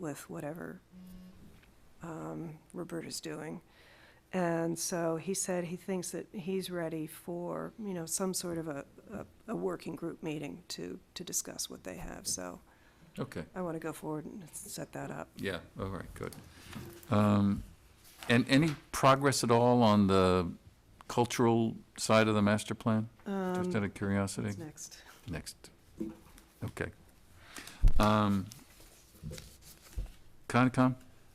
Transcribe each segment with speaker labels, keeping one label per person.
Speaker 1: with whatever um, Roberta's doing. And so he said he thinks that he's ready for, you know, some sort of a, a, a working group meeting to, to discuss what they have. So
Speaker 2: Okay,
Speaker 1: I want to go forward and set that up.
Speaker 2: yeah, all right, good. Um, And any progress at all on the cultural side of the master plan? Just out of curiosity?
Speaker 1: What's next?
Speaker 2: Next. Okay. Um, Concom?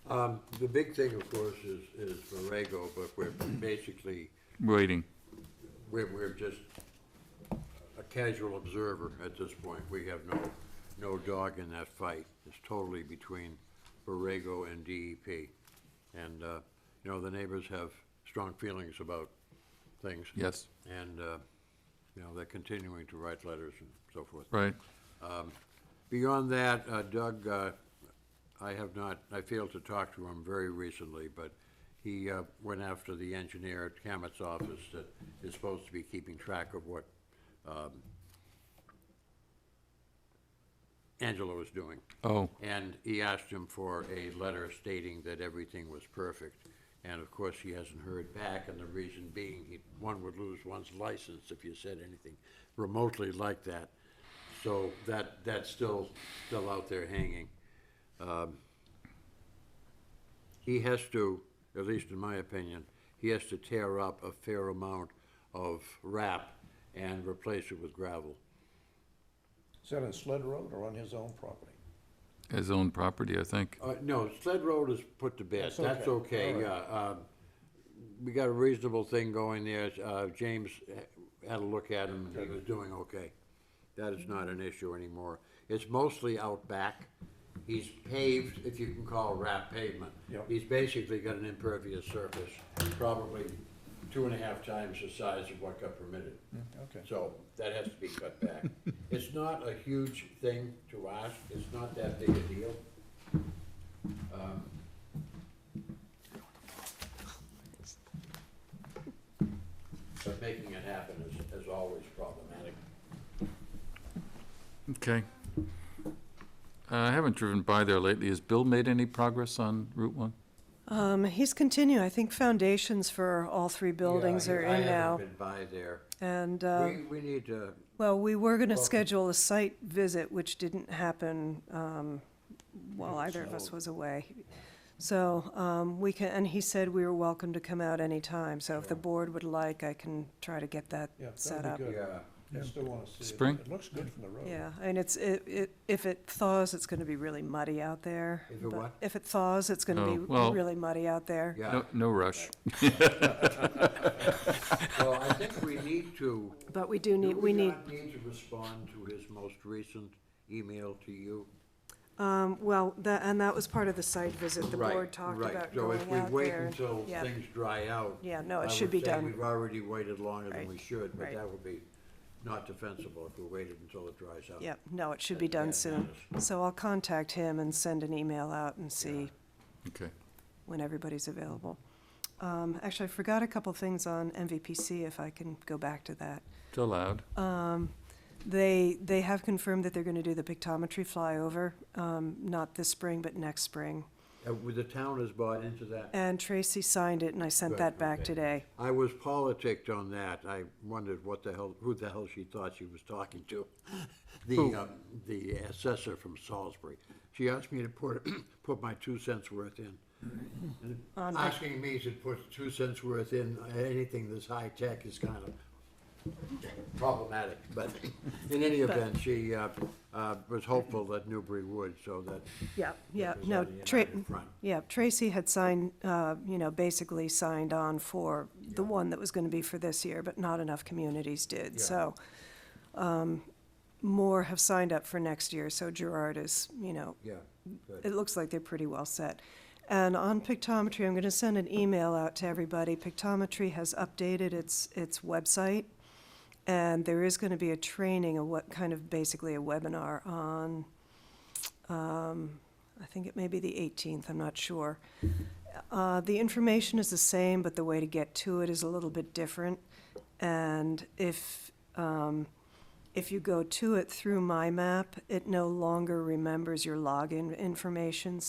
Speaker 3: Um, the big thing, of course, is, is Borrego, but we're basically,
Speaker 2: Waiting.
Speaker 3: we're, we're just a casual observer at this point. We have no, no dog in that fight. It's totally between Borrego and DEP. And, uh, you know, the neighbors have strong feelings about things.
Speaker 2: Yes,
Speaker 3: And, uh, you know, they're continuing to write letters and so forth.
Speaker 2: right.
Speaker 3: Beyond that, uh, Doug, uh, I have not, I failed to talk to him very recently, but he uh, went after the engineer at Camet's office that is supposed to be keeping track of what um, Angelo is doing.
Speaker 2: Oh,
Speaker 3: And he asked him for a letter stating that everything was perfect. And of course, he hasn't heard back, and the reason being, he, one would lose one's license if you said anything remotely like that. So that, that's still, still out there hanging. Um, He has to, at least in my opinion, he has to tear up a fair amount of wrap and replace it with gravel.
Speaker 4: Is that on Sled Road or on his own property?
Speaker 2: his own property, I think.
Speaker 3: Uh, no, Sled Road is put to bed,
Speaker 4: That's
Speaker 3: that's
Speaker 4: okay.
Speaker 3: okay, yeah, um, we got a reasonable thing going there, uh, James had a look at him, and he was doing okay. That is not an issue anymore, it's mostly out back, he's paved, if you can call wrap pavement.
Speaker 4: Yeah.
Speaker 3: He's basically got an impervious surface, probably two and a half times the size of what got permitted.
Speaker 4: Okay.
Speaker 3: So that has to be cut back. It's not a huge thing to ask, it's not that big a deal. Um, But making it happen is, is always problematic.
Speaker 2: Okay. Uh, I haven't driven by there lately. Has Bill made any progress on Route 1?
Speaker 1: Um, he's continuing. I think foundations for all three buildings
Speaker 3: Yeah,
Speaker 1: are in
Speaker 3: I
Speaker 1: now.
Speaker 3: haven't been by there.
Speaker 1: And, uh,
Speaker 3: We, we need to,
Speaker 1: well, we were going to
Speaker 3: Welcome.
Speaker 1: schedule a site visit, which didn't happen, um, while either of us
Speaker 4: So-
Speaker 1: was away. So, um, we can, and he said we were welcome to come out anytime. So if the board would like, I can try to get that
Speaker 4: Yeah,
Speaker 1: set
Speaker 4: that'd
Speaker 1: up.
Speaker 4: be good.
Speaker 3: yeah,
Speaker 4: I still want to see it.
Speaker 2: Spring?
Speaker 4: It looks good from the road.
Speaker 1: Yeah, and it's, it, it, if it thaws, it's gonna be really muddy out there.
Speaker 3: If it
Speaker 1: but
Speaker 3: what?
Speaker 1: If it thaws, it's gonna
Speaker 2: Oh,
Speaker 1: be
Speaker 2: well-
Speaker 1: really muddy out there.
Speaker 3: yeah.
Speaker 2: No, no rush.
Speaker 3: Well, I think we need to,
Speaker 1: But we do
Speaker 3: do
Speaker 1: need,
Speaker 3: we
Speaker 1: we need,
Speaker 3: not need to respond to his most recent email to you?
Speaker 1: um, well, that, and that was part of the site visit, the
Speaker 3: Right,
Speaker 1: board talked
Speaker 3: right.
Speaker 1: about
Speaker 3: So
Speaker 1: going
Speaker 3: if we
Speaker 1: out
Speaker 3: wait
Speaker 1: there.
Speaker 3: until
Speaker 1: Yeah.
Speaker 3: things dry out.
Speaker 1: Yeah, no, it
Speaker 3: I
Speaker 1: should
Speaker 3: would
Speaker 1: be
Speaker 3: say
Speaker 1: done.
Speaker 3: We've already waited longer than
Speaker 1: Right,
Speaker 3: we should, but
Speaker 1: right.
Speaker 3: that would be not defensible if we waited until it dries out.
Speaker 1: Yep, no, it should be
Speaker 3: Yeah,
Speaker 1: done
Speaker 3: that
Speaker 1: soon. So I'll contact him and send an email out and see
Speaker 2: Okay.
Speaker 1: when everybody's available. Um, actually, I forgot a couple things on MVPC, if I can go back to that.
Speaker 2: It's allowed.
Speaker 1: They, they have confirmed that they're gonna do the pictometry flyover, um, not this spring, but next spring.
Speaker 3: Uh, would The town has bought into that.
Speaker 1: And Tracy signed it, and I sent
Speaker 3: Good,
Speaker 1: that back
Speaker 3: okay.
Speaker 1: today.
Speaker 3: I was politicked on that. I wondered what the hell, who the hell she thought she was talking to. The, uh, the assessor from Salisbury. She asked me to put, put my two cents worth in. And Asking me to put two cents worth in uh, anything that's high-tech is kind of problematic, but in any event, she uh, uh, was hopeful that Newbury would, so that.
Speaker 1: Yeah, yeah,
Speaker 3: there's
Speaker 1: no,
Speaker 3: already an
Speaker 1: Tra-
Speaker 3: eye in front.
Speaker 1: yeah, Tracy had signed, uh, you know, basically signed on for the one that was gonna be for this year, but not enough communities did,
Speaker 3: Yeah.
Speaker 1: so. um, More have signed up for next year, so Gerard is, you know,
Speaker 3: Yeah, good.
Speaker 1: it looks like they're pretty well set. And on pictometry, I'm gonna send an email out to everybody. Pictometry has updated its, its website. And there is gonna be a training of what kind of, basically a webinar on, um, I think it may be the eighteenth, I'm not sure. Uh, the information is the same, but the way to get to it is a little bit different. And if, um, if you go to it through My Map, it no longer remembers your login information,